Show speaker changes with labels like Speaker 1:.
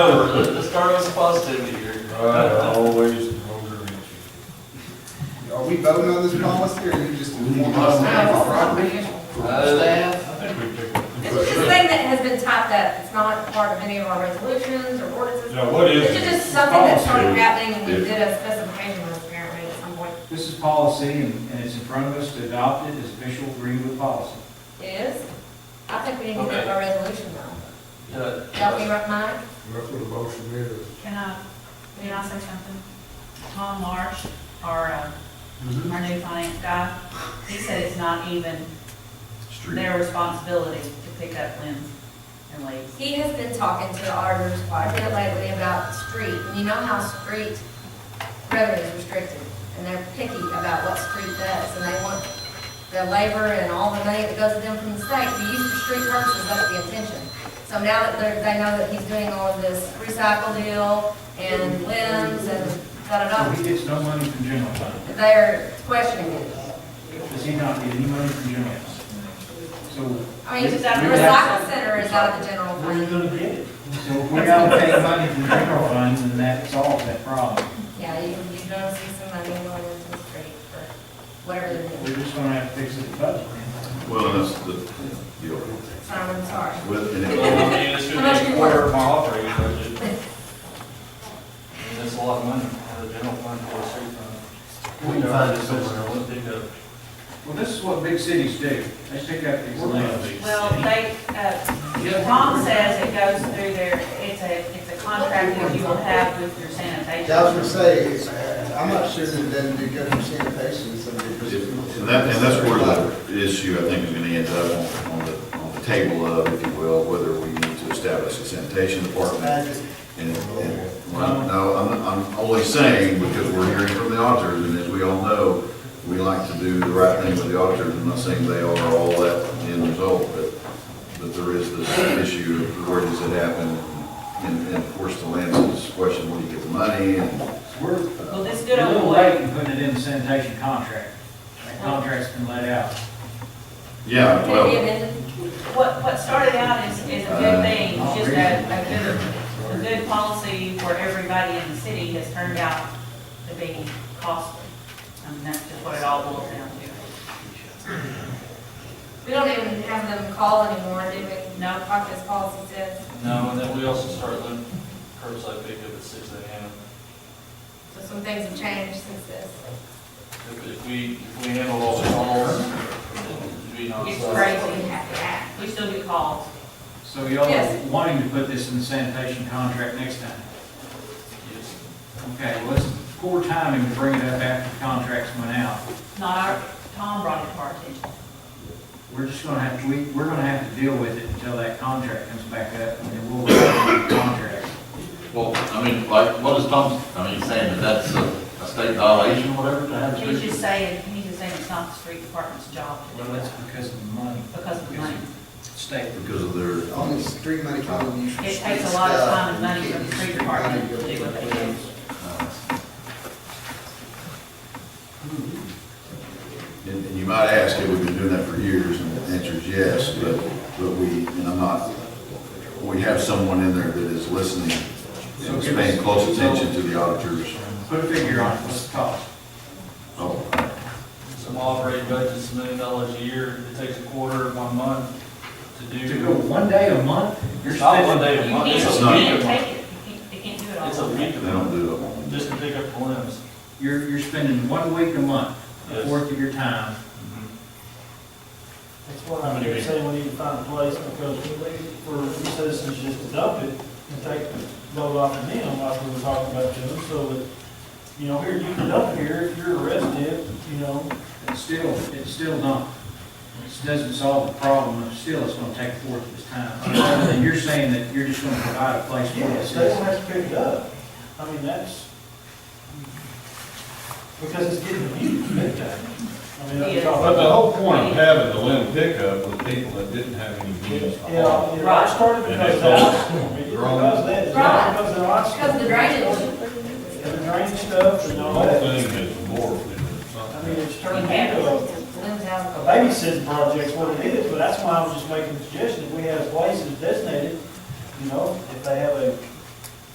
Speaker 1: This car was positive here.
Speaker 2: I always wonder.
Speaker 3: Are we voting on this policy, or you just?
Speaker 1: Uh,
Speaker 4: This is just a thing that has been typed up, it's not part of any of our resolutions or ordinances.
Speaker 2: Now, what is?
Speaker 4: This is just something that started
Speaker 2: Policy.
Speaker 4: happening, and we did a specification on it apparently at some point.
Speaker 5: This is policy, and and it's in front of us to adopt it as official Greenwood policy.
Speaker 4: It is? I think we need to do a resolution though. That'll be
Speaker 1: yeah.
Speaker 4: right, Mike?
Speaker 2: That's what a motion is.
Speaker 6: Can I, may I say something? Tom Marsh, our, uh, our new finance guy, he said it's not even their responsibility to pick up limbs and leaves.
Speaker 4: He has been talking to the auditors quite a bit lately about street, and you know how street revenue is restricted, and they're picky about what street does, and they want the labor and all the money that goes to them from the state to be used for street purposes, that's the intention. So now that they're, they know that he's doing all of this recycle deal and limbs and
Speaker 5: So
Speaker 4: da-da-da,
Speaker 5: he gets no money from general fund.
Speaker 4: they're questioning it.
Speaker 5: Does he not get any money from general fund? So.
Speaker 4: I mean, the
Speaker 5: we would have-
Speaker 4: recycle center is out of the general
Speaker 5: Where are you
Speaker 4: fund.
Speaker 5: gonna get it? So if we're allocating money from general fund, then that solves that problem.
Speaker 4: Yeah, you, you don't see some money going into the street for whatever they're doing.
Speaker 5: We're just gonna have to fix it budget.
Speaker 7: Well, and that's the, you know,
Speaker 4: So I'm sorry.
Speaker 7: with, and it-
Speaker 1: Well, I mean, it's
Speaker 4: How much
Speaker 1: gonna
Speaker 4: do
Speaker 1: be a
Speaker 4: you
Speaker 1: quarter of my operating budget. And That's a lot of money, out of the general fund for a street fund. We can find it somewhere, we'll dig up.
Speaker 5: Well, this is what big cities do. They pick up these limbs.
Speaker 6: Well, they, uh, Tom says it goes through their, it's a, it's a contract that you will have with your sanitation.
Speaker 3: I was gonna say, it's, uh, I'm not sure that then do good for sanitation, so. because-
Speaker 7: and that, and that's where the issue, I think, is gonna end up on, on the, on the table of, if you will, whether we need to establish a sanitation department. And, and, well, no, I'm, I'm only saying, because we're hearing from the auditors, and as we all know, we like to do the right thing with the auditors, I'm not saying they are all that end result, but, but there is this issue of where does it happen? And, and of course, the Lance's question, where do you get the money, and
Speaker 5: We're
Speaker 6: Well, this
Speaker 5: a
Speaker 6: good old
Speaker 5: little
Speaker 6: boy,
Speaker 5: late in putting it in the sanitation contract. That contract's been let out.
Speaker 7: Yeah,
Speaker 4: Did we
Speaker 7: well,
Speaker 4: amend it?
Speaker 6: what, what started out is, is a good thing, just a, a good, a good policy for everybody in the city has turned out to be costly. I mean, that's just what it all boils down to.
Speaker 4: We don't even have them call anymore, do we?
Speaker 6: No.
Speaker 4: Like this policy says,
Speaker 1: No, and then we also start limiting curbside pickup at six AM.
Speaker 4: so some things have changed since this.
Speaker 1: If if we, if we handle all the calls, then we not.
Speaker 6: It's
Speaker 1: sell.
Speaker 6: great.
Speaker 4: So we have to act.
Speaker 6: We still get calls.
Speaker 5: So y'all are
Speaker 4: Yes.
Speaker 5: wanting to put this in the sanitation contract next time?
Speaker 1: Yes.
Speaker 5: Okay, well, it's poor timing to bring it up after the contracts went out.
Speaker 6: Not our, Tom brought it to our attention.
Speaker 5: We're just gonna have, we, we're gonna have to deal with it until that contract comes back up, and then we'll work on the contract.
Speaker 8: Well, I mean, like, what is Tom, I mean, saying that that's a a state violation, or whatever, to have a
Speaker 6: He's
Speaker 8: street?
Speaker 6: just saying, he's just saying it's not the street department's job to
Speaker 5: Well,
Speaker 6: do it
Speaker 5: that's because of the money.
Speaker 6: because of the money.
Speaker 5: State.
Speaker 7: because of their,
Speaker 3: Only street money coming you.
Speaker 6: It takes a lot of time and money from the street department to do what they do.
Speaker 7: and and you might ask, have we been doing that for years? And the answer is yes, but, but we, and I'm not, we have someone in there that is listening and is paying close attention to the auditors.
Speaker 5: Put a figure on it, what's the cost?
Speaker 7: Oh,
Speaker 1: Some operating budget's a million dollars a year, it takes a quarter of one month to do.
Speaker 5: To go one day a month? You're
Speaker 1: It's not one day
Speaker 5: spending-
Speaker 1: a
Speaker 6: You
Speaker 1: month,
Speaker 6: can't, you
Speaker 1: it's a
Speaker 6: can't
Speaker 1: week. of-
Speaker 6: take it, you can't, they can't do it all.
Speaker 1: It's a week
Speaker 7: they
Speaker 1: of
Speaker 7: don't
Speaker 1: them,
Speaker 7: do it.
Speaker 1: just to pick up the limbs.
Speaker 5: You're, you're spending one week a month, a
Speaker 1: Yes.
Speaker 5: fourth of your time.
Speaker 9: That's what I'm here saying, we need to find a place because we leave it for the citizens just to dump it and take the load off of them like we were talking about to them, so that, you know, here, you can dump here, if you're a resident, you know,
Speaker 5: It's still, it's still not, it doesn't solve the problem, it's still, it's gonna take a fourth of its time. Other than you're saying that you're just gonna provide a place for
Speaker 9: yes,
Speaker 5: us.
Speaker 9: they don't have to pick it up. I mean, that's, because it's getting used big time. I mean, that's all.
Speaker 2: But the whole point of having the limb pickup was people that didn't have any means.
Speaker 9: Yeah, it all started because of that, it because of that, it's not because of the last.
Speaker 4: Because of the drainage,
Speaker 9: And the drain stuff and
Speaker 2: The
Speaker 9: all
Speaker 2: whole
Speaker 9: that.
Speaker 2: thing is morphed into
Speaker 9: I
Speaker 2: something.
Speaker 9: mean, it's turned into a
Speaker 4: limbs out.
Speaker 9: a babysitting project's what it is, but that's why I was just making the suggestion, if we have places designated, you know, if they have a